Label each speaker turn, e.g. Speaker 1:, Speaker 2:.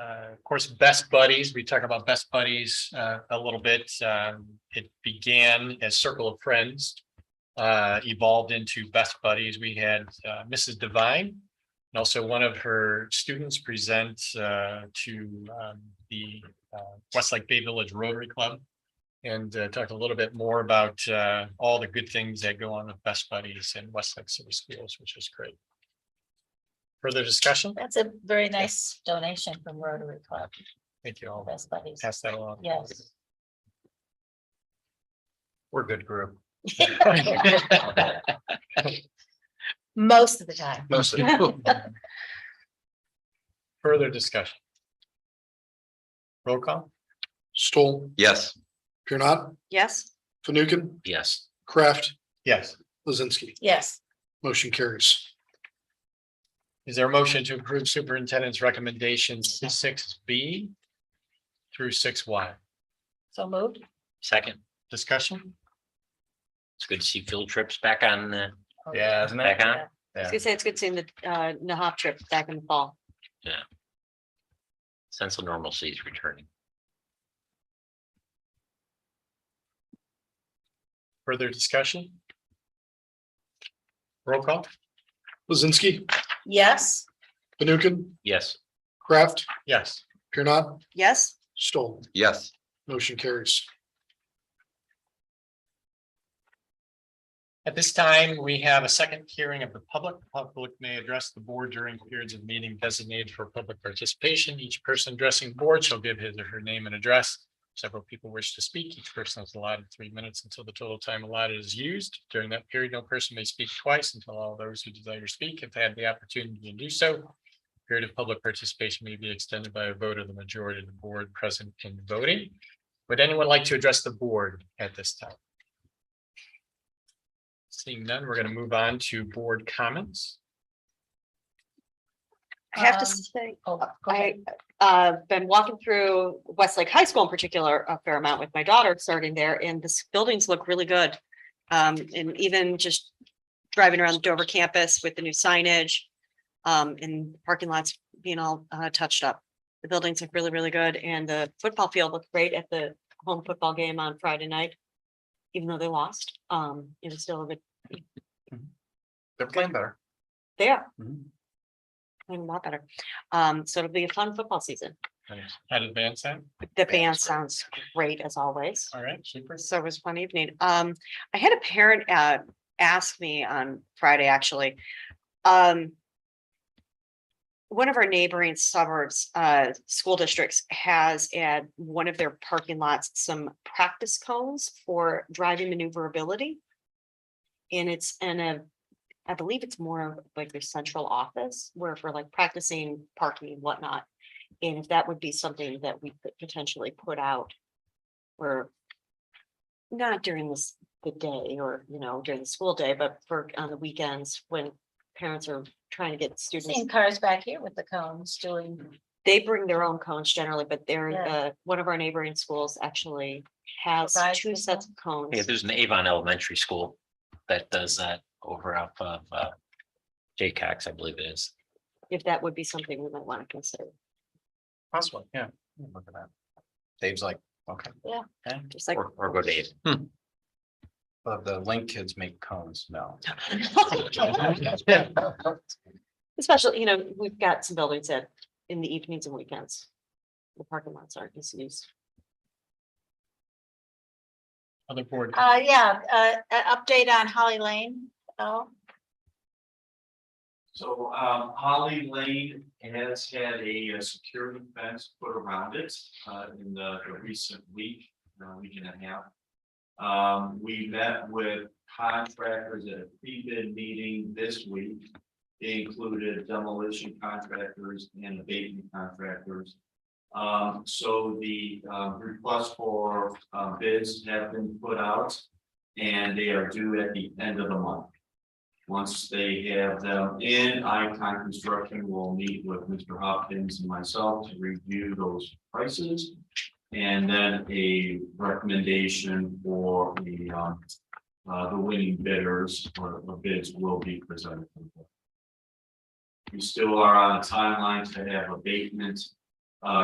Speaker 1: Uh, of course, best buddies, we talk about best buddies, uh, a little bit, um, it began as circle of friends. Uh, evolved into best buddies, we had, uh, Mrs. Divine. And also one of her students present, uh, to, um, the, uh, Westlake Bay Village Rotary Club. And, uh, talked a little bit more about, uh, all the good things that go on with best buddies in Westlake City Schools, which is great. Further discussion?
Speaker 2: That's a very nice donation from Rotary Club,
Speaker 1: Thank you
Speaker 2: all
Speaker 1: all.
Speaker 2: best buddies.
Speaker 1: Pass that along.
Speaker 2: Yes.
Speaker 1: We're a good group.
Speaker 2: Most of the time.
Speaker 1: Mostly. Further discussion. Roll call?
Speaker 3: Stoll,
Speaker 4: Yes.
Speaker 3: Pure not,
Speaker 2: Yes.
Speaker 3: Fanukin,
Speaker 4: Yes.
Speaker 3: Kraft,
Speaker 1: Yes.
Speaker 3: Lizinski,
Speaker 2: Yes,
Speaker 3: motion carries.
Speaker 1: Is there a motion to approve superintendent's recommendations six B through six Y?
Speaker 2: so moved.
Speaker 4: Second,
Speaker 1: Discussion?
Speaker 4: it's good to see field trips back on, uh,
Speaker 1: Yeah, isn't
Speaker 4: back on.
Speaker 5: I was gonna say, it's good seeing the uh Nahop trip back in the fall.
Speaker 4: Sense of normalcy is returning.
Speaker 1: Further discussion? Roll call?
Speaker 3: Lizinski,
Speaker 2: Yes,
Speaker 3: Fanukin,
Speaker 4: Yes.
Speaker 3: Kraft,
Speaker 1: Yes.
Speaker 3: Pure not,
Speaker 5: Yes,
Speaker 3: Stoll,
Speaker 4: Yes.
Speaker 3: motion carries.
Speaker 1: At this time, we have a second hearing of the public. The Public may address the board during periods of meeting designated for public participation. Each person addressing board shall give his or her name and address. Several people wish to speak. Each person is allotted three minutes until the total time allotted is used. During that period, no person may speak twice until all those who desire to speak have had the opportunity to do so. Period of public participation may be extended by a vote of the majority of the board present in voting. Would anyone like to address the board at this time? Seeing none, we're gonna move on to board comments.
Speaker 5: I have
Speaker 2: Um,
Speaker 5: to say,
Speaker 2: oh, go
Speaker 5: I
Speaker 2: ahead.
Speaker 5: uh been walking through Westlake High School in particular a fair amount with my daughter starting there and the s- buildings look really good. Um, and even just driving around Dover campus with the new signage. Um, and parking lots being all uh touched up. The buildings look really, really good and the football field looked great at the home football game on Friday night. Even though they lost, um, it was still a good,
Speaker 1: They're playing better.
Speaker 5: they are playing a lot better. Um, so it'll be a fun football season.
Speaker 1: Had advanced that,
Speaker 5: The band sounds great as always.
Speaker 1: all right, super.
Speaker 5: So it was one evening. Um, I had a parent uh ask me on Friday, actually. Um. One of our neighboring suburbs, uh, school districts has at one of their parking lots, some practice cones for driving maneuverability. And it's in a, I believe it's more of like their central office where for like practicing parking and whatnot. And if that would be something that we could potentially put out. Where not during this, the day or, you know, during the school day, but for on the weekends when parents are trying to get students.
Speaker 2: Seen cars back here with the cones doing,
Speaker 5: They bring their own cones generally, but they're,
Speaker 2: Yeah.
Speaker 5: uh, one of our neighboring schools actually has
Speaker 2: Provides
Speaker 5: two
Speaker 2: with
Speaker 5: sets of cones.
Speaker 4: Yeah, there's an Avon Elementary School that does that over off of, uh, Jay Cox, I believe it is.
Speaker 5: If that would be something we might want to consider,
Speaker 1: Possible, yeah.
Speaker 4: Look at that. Dave's like, okay.
Speaker 5: just like.
Speaker 4: Or, or go Dave.
Speaker 6: But the link kids make cones now.
Speaker 5: Especially, you know, we've got some buildings that in the evenings and weekends. The parking lots aren't as used.
Speaker 1: Other board,
Speaker 2: uh, yeah, uh, an update on Holly Lane. Oh,
Speaker 7: So um Holly Lane has had a uh, security fence put around it uh in the the recent week, uh week and a half. Um, we met with contractors at a pre-bid meeting this week. They included demolition contractors and abatement contractors. Um, so the uh request for uh bids have been put out and they are due at the end of the month. Once they have them in, Icon Construction will meet with Mr. Hopkins and myself to review those prices. And then a recommendation for the, um, uh, the winning bidders or the bids will be presented. We still are on a timeline to have abatement, uh,